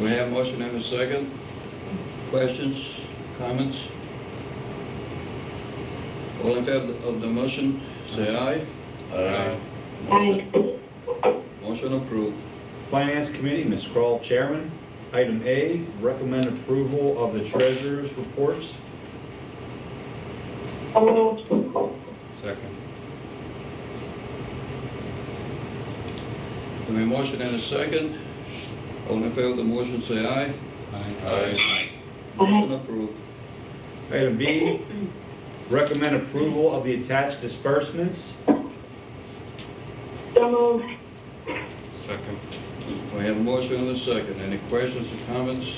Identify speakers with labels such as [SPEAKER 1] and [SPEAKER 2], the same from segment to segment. [SPEAKER 1] We have motion and a second. Questions, comments? All in favor of the motion, say aye.
[SPEAKER 2] Aye.
[SPEAKER 1] Motion- Motion approved.
[SPEAKER 3] Finance Committee, Ms. Kroll, Chairman. Item A, recommend approval of the treasurer's reports.
[SPEAKER 2] Second.
[SPEAKER 1] We have motion and a second. All in favor of the motion, say aye.
[SPEAKER 2] Aye.
[SPEAKER 1] Motion approved.
[SPEAKER 3] Item B, recommend approval of the attached disbursements.
[SPEAKER 2] Second.
[SPEAKER 1] We have motion and a second. Any questions or comments?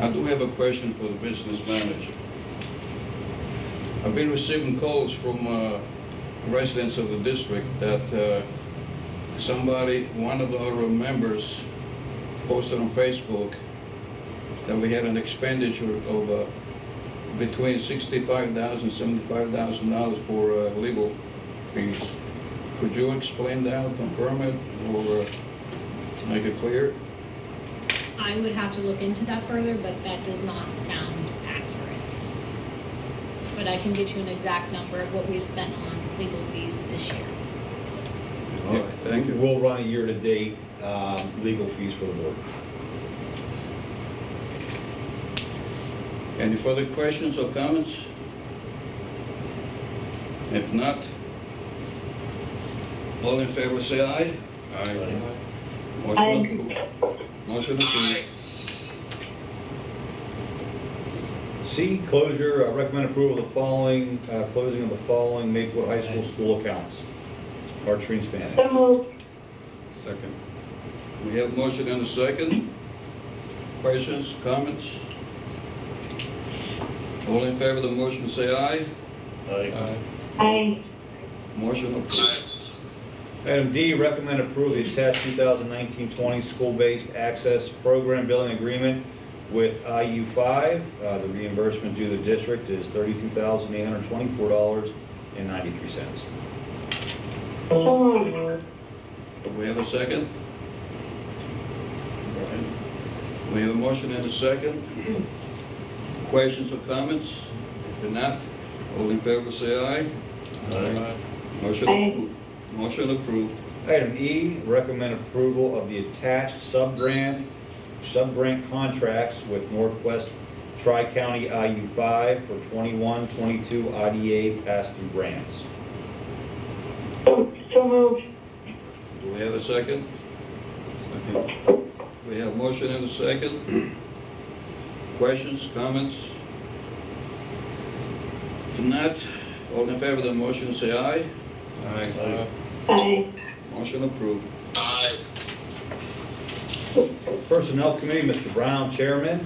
[SPEAKER 1] I do have a question for the business manager. I've been receiving calls from uh, residents of the district that uh, somebody, one of our members posted on Facebook that we had an expenditure of uh, between $65,000, $75,000 for uh, legal fees. Could you explain that, confirm it, or uh, make it clear?
[SPEAKER 4] I would have to look into that further, but that does not sound accurate. But I can get you an exact number of what we've spent on legal fees this year.
[SPEAKER 1] All right, thank you.
[SPEAKER 3] We'll run a year-to-date um, legal fees for the board.
[SPEAKER 1] Any further questions or comments? If not, all in favor say aye.
[SPEAKER 2] Aye.
[SPEAKER 1] Motion approved. Motion approved.
[SPEAKER 3] C, closure, uh, recommend approval of the following, uh, closing of the following Maplewood High School school accounts. Archery and Spanish.
[SPEAKER 2] Second.
[SPEAKER 1] We have motion and a second. Questions, comments? All in favor of the motion say aye.
[SPEAKER 2] Aye.
[SPEAKER 1] Motion approved.
[SPEAKER 3] Item D, recommend approval of the attached 2019-20 school-based access program billing agreement with IU5. Uh, The reimbursement due to the district is $32,824.93.
[SPEAKER 1] Do we have a second? We have a motion and a second. Questions or comments? If not, all in favor say aye.
[SPEAKER 2] Aye.
[SPEAKER 1] Motion approved. Motion approved.
[SPEAKER 3] Item E, recommend approval of the attached sub-grant, sub-grant contracts with Northwest Tri-County IU5 for 21, 22 IDA pass-through grants.
[SPEAKER 1] Do we have a second?
[SPEAKER 2] Second.
[SPEAKER 1] We have motion and a second. Questions, comments? If not, all in favor of the motion say aye.
[SPEAKER 2] Aye.
[SPEAKER 1] Motion approved.
[SPEAKER 3] Personnel Committee, Mr. Brown, Chairman.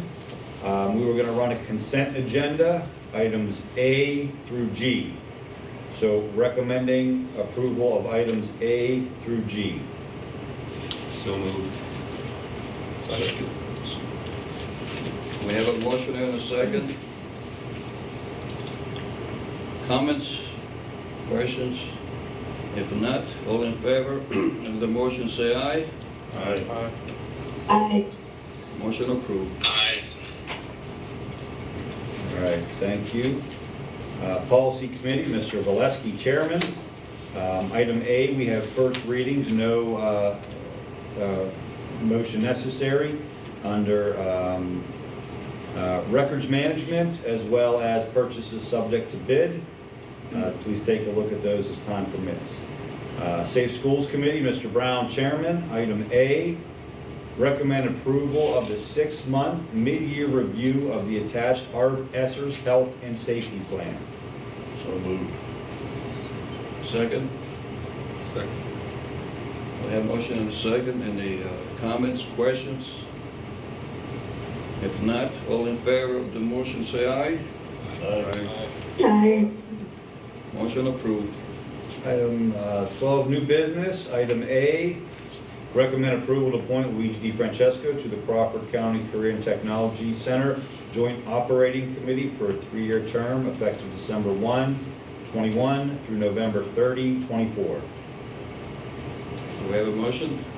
[SPEAKER 3] Um, We were going to run a consent agenda, items A through G. So recommending approval of items A through G.
[SPEAKER 2] So moved. Second.
[SPEAKER 1] We have a motion and a second. Comments, questions? If not, all in favor of the motion, say aye.
[SPEAKER 2] Aye.
[SPEAKER 1] Motion approved.
[SPEAKER 3] All right, thank you. Uh, Policy Committee, Mr. Valesky, Chairman. Um, Item A, we have first readings, no uh, uh, motion necessary under um, uh, records management as well as purchases subject to bid. Uh, Please take a look at those as time permits. Uh, Safe Schools Committee, Mr. Brown, Chairman. Item A, Recommend approval of the six-month mid-year review of the attached Art Esser's Health and Safety Plan.
[SPEAKER 2] So moved.
[SPEAKER 1] Second,
[SPEAKER 2] Second.
[SPEAKER 1] we have motion and a second. Any uh, comments, questions? If not, all in favor of the motion, say aye.
[SPEAKER 2] Aye.
[SPEAKER 1] Motion approved.
[SPEAKER 3] Item uh, 12, new business. Item A, recommend approval to appoint Luigi Di Francesco to the Crawford County Career and Technology Center Joint Operating Committee for a three-year term effective December 1, 21 through November 30, 24.
[SPEAKER 1] Do we have a motion?